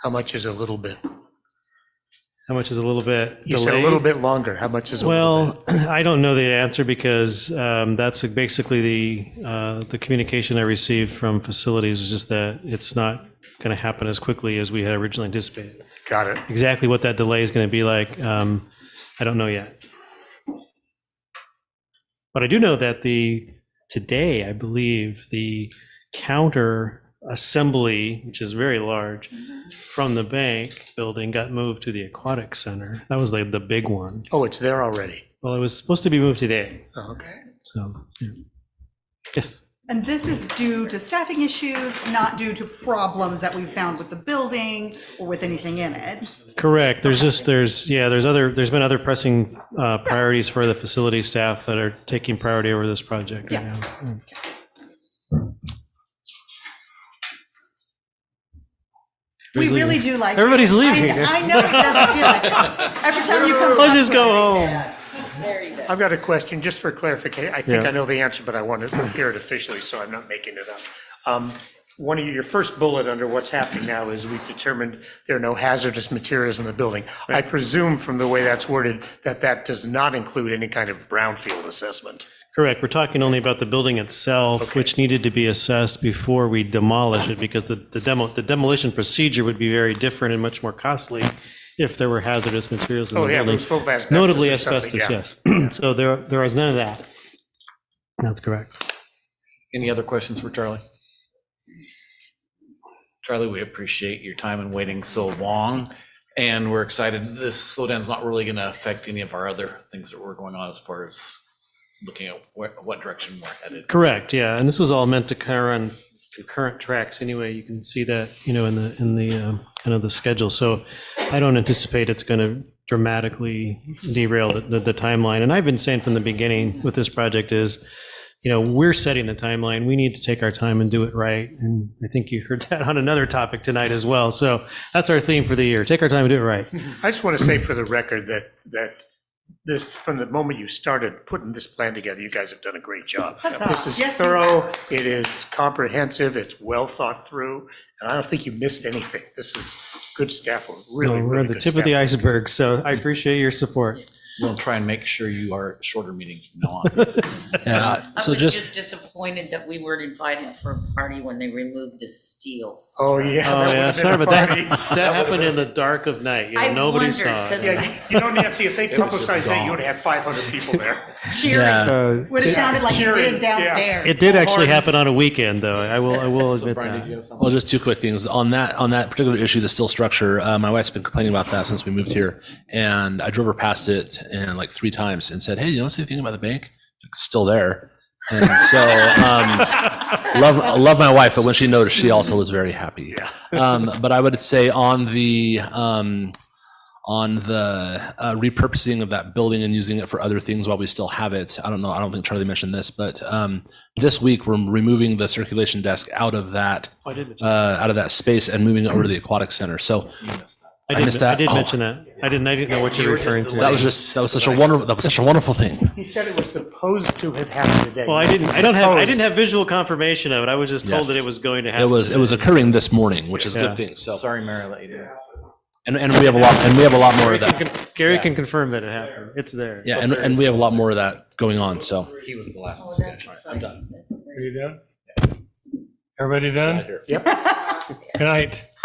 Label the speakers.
Speaker 1: How much is a little bit?
Speaker 2: How much is a little bit
Speaker 1: You said a little
Speaker 2: delayed?
Speaker 1: bit longer. How much is a little bit?
Speaker 2: Well, I don't know the answer because um, that's basically the, uh, the communication I received from facilities is just that it's not going to happen as quickly as we had originally anticipated.
Speaker 1: Got it.
Speaker 2: Exactly what that delay is going to be like, um, I don't know yet. But I do know that the, today, I believe, the counter assembly, which is very large, from the bank building got moved to the aquatic center. That was like the big one.
Speaker 1: Oh, it's there already. Oh,
Speaker 2: Well, it was supposed to be moved today,
Speaker 1: Okay.
Speaker 2: so. yeah. Yes,
Speaker 3: And this is due to staffing issues, not due to problems that we found with the building or with anything in it.
Speaker 2: correct. There's just, there's, yeah, there's other, there's been other pressing uh, priorities for the facility staff that are taking priority over this project right
Speaker 3: Yeah.
Speaker 2: now. Yeah.
Speaker 3: We
Speaker 2: Everybody's
Speaker 3: really
Speaker 2: leaving.
Speaker 3: do like.
Speaker 2: Everybody's
Speaker 3: I-
Speaker 2: leaving.
Speaker 3: I know it doesn't feel like it. Every time you come.
Speaker 2: Let's
Speaker 3: talk
Speaker 2: just
Speaker 3: to
Speaker 2: go
Speaker 3: us,
Speaker 2: home.
Speaker 1: I've got a question just for clarification. I think
Speaker 2: Yeah.
Speaker 1: I know the answer, but I want to hear it officially, so I'm not making it up. Um, One of your- your first bullet under what's happening now is we've determined there are no hazardous materials in the building. I presume from the way that's worded that that does not include any kind of brownfield assessment.
Speaker 2: Correct. We're talking only about the building itself, which needed to be assessed before we demolish it because the the demo, the demolition procedure would be very different and much more costly if there were hazardous materials in
Speaker 1: Oh,
Speaker 2: the
Speaker 1: yeah,
Speaker 2: building.
Speaker 1: there's full of asbestos.
Speaker 2: Notably
Speaker 1: or something,
Speaker 2: asbestos,
Speaker 1: yeah.
Speaker 2: yes. So there, there is none of that. That's correct.
Speaker 4: Any other questions for Charlie? Charlie, we appreciate your time and waiting so long, and we're excited. This slowdown's not really going to affect any of our other things that were going on as far as looking at what, what direction we're headed.
Speaker 2: Correct, yeah. And this was all meant to kind of run concurrent tracks anyway. You can see that, you know, in the, in the, um, kind of the schedule. So I don't anticipate it's going to dramatically derail the, the- the timeline. And I've been saying from the beginning with this project is, you know, we're setting the timeline. We need to take our time and do it right. And I think you heard that on another topic tonight as well. So that's our theme for the year. Take our time and do it right.
Speaker 1: I just want to say for the record that, that this, from the moment you started putting this plan together, you guys have done a great job.
Speaker 3: Huzzah.
Speaker 1: This is
Speaker 3: Yes, you
Speaker 1: thorough, it is comprehensive, it's well thought through, and I don't think you missed anything. This is good staff, really,
Speaker 2: We're
Speaker 1: really
Speaker 2: at the
Speaker 1: good
Speaker 2: tip of the
Speaker 1: staff.
Speaker 2: iceberg. So I appreciate your support.
Speaker 4: We'll try and make sure you are at shorter meetings from now on.
Speaker 5: Yeah,
Speaker 6: I
Speaker 5: Uh, so
Speaker 6: was
Speaker 5: just,
Speaker 6: just disappointed that we weren't invited for a party when they removed the steels.
Speaker 1: Oh, yeah.
Speaker 2: Oh,
Speaker 1: that
Speaker 2: yeah,
Speaker 1: would've
Speaker 2: sorry
Speaker 1: been a
Speaker 2: about that.
Speaker 1: party.
Speaker 2: That happened in the dark of night. You know,
Speaker 6: I
Speaker 2: nobody
Speaker 6: wondered,
Speaker 2: saw it.
Speaker 6: 'cause
Speaker 1: Yeah, you- you know, Nancy, if they
Speaker 4: was just
Speaker 1: publicized that,
Speaker 4: gone.
Speaker 1: you would have had 500 people there.
Speaker 6: Cheering.
Speaker 2: Uh,
Speaker 3: Would have sounded like it
Speaker 1: Cheering, yeah.
Speaker 3: did downstairs.
Speaker 2: it did actually happen on a weekend, though. I will. I will admit that.
Speaker 5: something?
Speaker 7: Well, just two quick things on that on that particular issue, the steel structure. Uh, my wife's been complaining about that since we moved here, and I drove her past it and like three times and said, "Hey, you don't see anything about the bank? It's still there." And so, um, love love my wife, but when she noticed, she also was very happy. Um, but I would say on the um, on the uh, repurposing of that building and using it for other things while we still have it. I don't know. I don't think Charlie mentioned this, but um, this week we're removing the circulation desk out of that
Speaker 2: I did. mention-
Speaker 7: uh, out of that space and moving it over to the aquatic center. So
Speaker 2: I
Speaker 7: I
Speaker 2: did,
Speaker 7: missed
Speaker 2: I
Speaker 7: that.
Speaker 2: did
Speaker 7: Oh.
Speaker 2: mention that. I didn't. I didn't know what you're referring to.
Speaker 7: that was just that was such a wonderful that was such a wonderful thing.
Speaker 1: He said it was supposed to have happened today.
Speaker 2: Well, I didn't. I don't have. I didn't have visual confirmation of it. I was just told that
Speaker 7: Yes.
Speaker 2: it was going to
Speaker 7: It
Speaker 2: happen.
Speaker 7: was it was occurring this morning, which is a
Speaker 2: Yeah.
Speaker 7: good thing. So
Speaker 4: Sorry, Mary, I let you do it.
Speaker 7: and, and we have a lot and we have a lot more
Speaker 2: Gary,
Speaker 7: of
Speaker 2: can,
Speaker 7: that.
Speaker 2: con- Gary can confirm that it happened. It's there.
Speaker 7: Yeah, and, and we have a lot more of that going on. So
Speaker 4: He was the last.
Speaker 6: Oh,
Speaker 4: one.
Speaker 6: that's
Speaker 4: All right, I'm done.
Speaker 6: exciting. That's great.
Speaker 8: Are you done? Everybody done?
Speaker 7: Right here.
Speaker 8: Good night.